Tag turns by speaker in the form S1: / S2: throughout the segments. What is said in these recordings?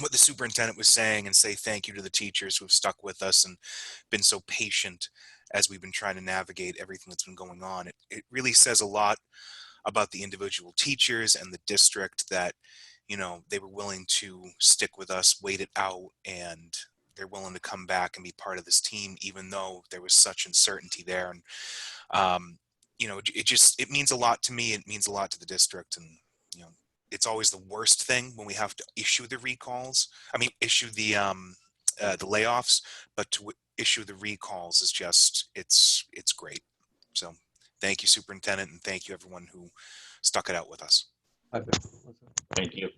S1: what the superintendent was saying and say thank you to the teachers who have stuck with us and been so patient as we've been trying to navigate everything that's been going on. It, it really says a lot about the individual teachers and the district that, you know, they were willing to stick with us, wait it out, and they're willing to come back and be part of this team, even though there was such uncertainty there. And, um, you know, it- it just, it means a lot to me. It means a lot to the district and, you know, it's always the worst thing when we have to issue the recalls. I mean, issue the, um, uh, the layoffs, but to issue the recalls is just it's it's great. So thank you, superintendent, and thank you everyone who stuck it out with us.
S2: I think that's it.
S3: Thank you.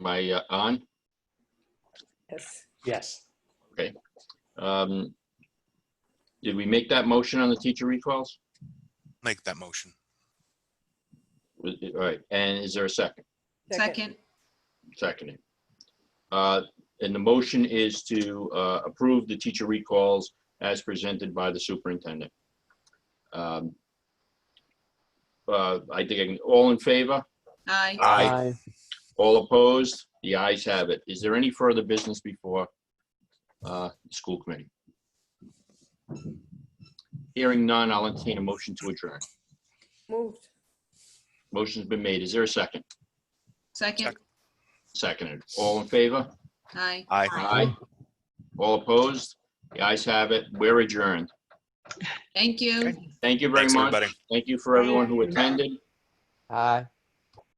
S3: Am I uh, on?
S4: Yes.
S5: Yes.
S3: Um, Did we make that motion on the teacher recalls?
S1: Make that motion.
S3: Was it- All right, and is there a second?
S6: Second,
S3: Seconding. Uh, And the motion is to uh, approve the teacher recalls as presented by the superintendent. Um, uh, I think, I can- all in favor?
S6: aye.
S3: Aye. All opposed? The ayes have it. Is there any further business before uh, the school committee? Hearing none, I'll entertain a motion to adjourn.
S4: Moved.
S3: Motion's been made. Is there a second?
S6: Second,
S3: Seconded. All in favor?
S6: aye.
S1: Aye.
S3: Aye. All opposed? The ayes have it. We're adjourned.
S6: Thank you.
S1: Okay.
S3: Thank you very
S1: Thanks,
S3: much.
S1: everybody.
S3: Thank you for everyone who attended.
S2: Aye.